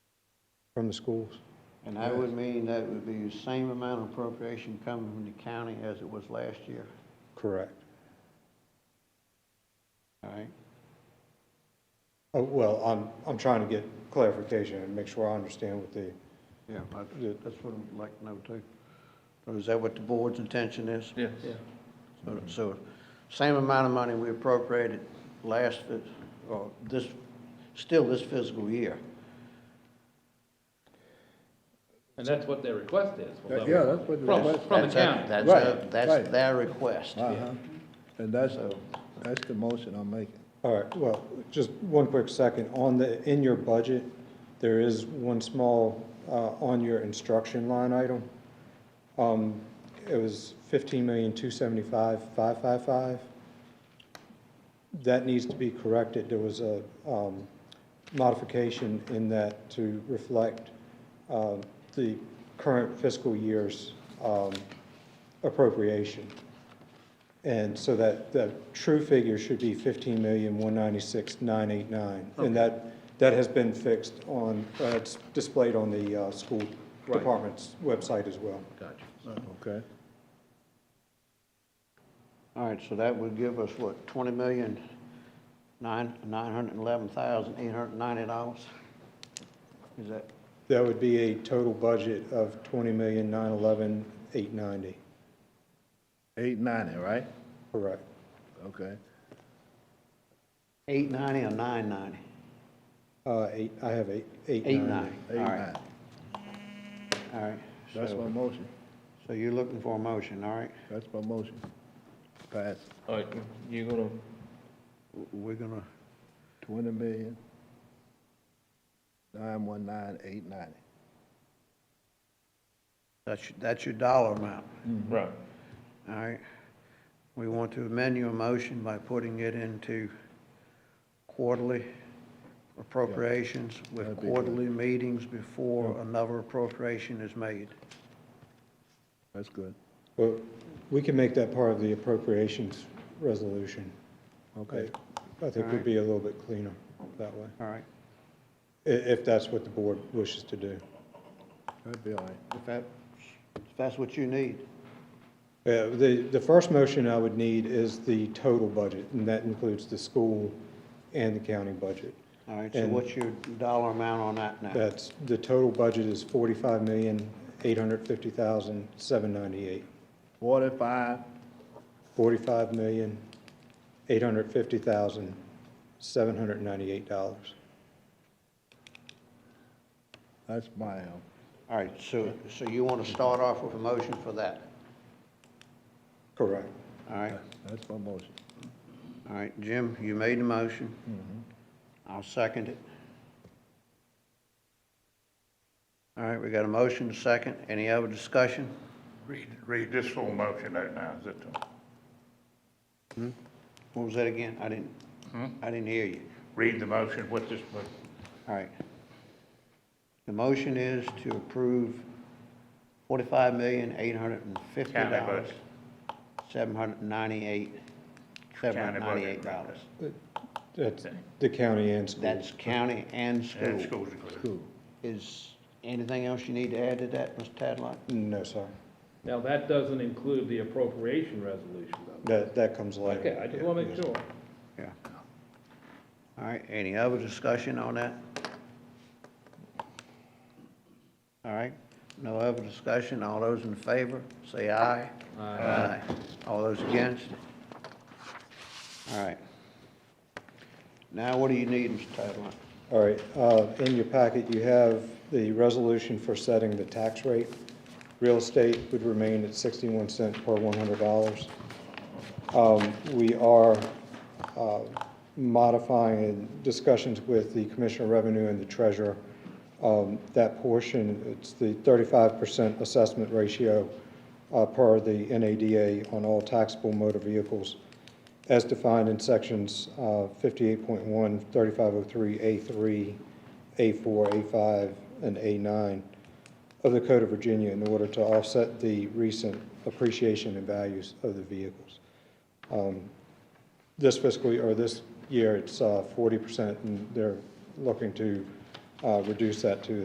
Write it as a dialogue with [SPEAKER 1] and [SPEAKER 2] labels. [SPEAKER 1] from the schools.
[SPEAKER 2] And that would mean that would be the same amount of appropriation coming from the county as it was last year,
[SPEAKER 1] Correct.
[SPEAKER 2] all right?
[SPEAKER 1] Oh, Well, I'm, I'm trying to get clarification and make sure I understand what the,
[SPEAKER 2] Yeah, I-
[SPEAKER 1] Yeah.
[SPEAKER 2] that's what I'd like to know too. So is that what the board's intention is?
[SPEAKER 3] Yes.
[SPEAKER 2] So- So, same amount of money we appropriated last, uh, or this, still this fiscal year.
[SPEAKER 3] And that's what their request is. from
[SPEAKER 4] That-
[SPEAKER 3] the-
[SPEAKER 4] yeah, that's what the
[SPEAKER 3] From,
[SPEAKER 4] request-
[SPEAKER 3] from the
[SPEAKER 2] That's a-
[SPEAKER 3] county.
[SPEAKER 2] That's,
[SPEAKER 4] Right,
[SPEAKER 2] a- that's
[SPEAKER 4] right.
[SPEAKER 2] their request.
[SPEAKER 4] Uh-huh. And that's,
[SPEAKER 2] So-
[SPEAKER 4] that's the motion I'm making.
[SPEAKER 1] all right, well, just one quick second. On the, in your budget, there is one small, uh, on your instruction line item. Um, It was fifteen million, two seventy-five, five five five. That needs to be corrected. There was a um, modification in that to reflect um, the current fiscal year's um, appropriation. And so that, the true figure should be fifteen million, one ninety-six, nine eight nine. And that, that has been fixed on, uh, it's displayed on the uh, school
[SPEAKER 3] Right.
[SPEAKER 1] department's website as well.
[SPEAKER 3] Gotcha.
[SPEAKER 4] Uh-huh. Okay.
[SPEAKER 2] All right, so that would give us what, twenty million, nine, nine hundred and eleven thousand, eight hundred and ninety dollars? Is that,
[SPEAKER 1] That would be a total budget of twenty million, nine eleven, eight ninety,
[SPEAKER 4] Eight ninety, right?
[SPEAKER 1] correct?
[SPEAKER 4] Okay.
[SPEAKER 2] eight ninety or nine ninety?
[SPEAKER 1] Uh, eight, I have eight, eight
[SPEAKER 2] Eight
[SPEAKER 1] ninety.
[SPEAKER 2] ninety, all
[SPEAKER 4] Eight
[SPEAKER 2] right,
[SPEAKER 4] ninety.
[SPEAKER 2] all right.
[SPEAKER 4] That's my
[SPEAKER 2] So,
[SPEAKER 4] motion.
[SPEAKER 2] so you're looking for a motion, all right?
[SPEAKER 4] That's my motion. Pass
[SPEAKER 3] All right, you gonna,
[SPEAKER 2] W- We're gonna,
[SPEAKER 4] twenty million, nine one nine, eight ninety.
[SPEAKER 2] that's, your- that's your dollar amount,
[SPEAKER 3] right,
[SPEAKER 2] all right? We want to amend your motion by putting it into quarterly appropriations with
[SPEAKER 4] That'd be good.
[SPEAKER 2] quarterly meetings before another appropriation is made.
[SPEAKER 4] That's good.
[SPEAKER 1] Well, we can make that part of the appropriations resolution.
[SPEAKER 4] Okay.
[SPEAKER 1] I I think we'd be a little bit cleaner that way,
[SPEAKER 2] All right,
[SPEAKER 1] i- if that's what the board wishes to do.
[SPEAKER 4] That'd be all right.
[SPEAKER 2] if that, if that's what you need.
[SPEAKER 1] Yeah, Uh, the, the first motion I would need is the total budget, and that includes the school and the county budget.
[SPEAKER 2] All right, so
[SPEAKER 1] And-
[SPEAKER 2] what's your dollar amount on that now?
[SPEAKER 1] That's, the total budget is forty-five million, eight hundred fifty thousand, seven ninety-eight.
[SPEAKER 4] Forty-five,
[SPEAKER 1] Forty-five million, eight hundred fifty thousand, seven hundred ninety-eight dollars.
[SPEAKER 4] that's my, um,
[SPEAKER 2] All right, so, so you want to start off with a motion for that?
[SPEAKER 1] Correct.
[SPEAKER 2] All right,
[SPEAKER 4] that's my motion.
[SPEAKER 2] all right, Jim, you made the motion. I'll second it. All right, we got a motion, a second. Any other discussion?
[SPEAKER 5] Read, read this full motion out now, is it?
[SPEAKER 2] What was that again? I didn't, I didn't hear you.
[SPEAKER 5] Read the motion with this, mo-
[SPEAKER 2] All right. The motion is to approve forty-five million, eight hundred and fifty
[SPEAKER 5] County
[SPEAKER 2] dollars.
[SPEAKER 5] budget.
[SPEAKER 2] Seven hundred and ninety-eight, seven hundred
[SPEAKER 5] County
[SPEAKER 2] and
[SPEAKER 5] budget.
[SPEAKER 2] ninety-eight dollars.
[SPEAKER 1] That's the county and school.
[SPEAKER 2] That's county and
[SPEAKER 5] and
[SPEAKER 2] school.
[SPEAKER 5] schools included.
[SPEAKER 2] Is anything else you need to add to that, Mr. Tadlock?
[SPEAKER 1] No, sir.
[SPEAKER 3] now that doesn't include the appropriation resolution though.
[SPEAKER 1] That, that comes later.
[SPEAKER 3] Okay, I just wanna make sure.
[SPEAKER 2] Yeah. All right, any other discussion on that? All right, no other discussion, all those in favor, say aye. Aye. All those against? All right. Now, what do you need, Mr. Tadlock?
[SPEAKER 1] All right, uh, in your packet, you have the resolution for setting the tax rate. Real estate would remain at 61 cent per $100. Um, We are uh, modifying discussions with the Commissioner of Revenue and the Treasurer. Um, That portion, it's the 35% assessment ratio uh, per the NADA on all taxable motor vehicles as defined in sections uh, 58.1, 3503A3, A4, A5, and A9 of the Code of Virginia in order to offset the recent appreciation in values of the vehicles. Um, This fiscal, year or this year, it's uh, 40%, and they're looking to uh, reduce that to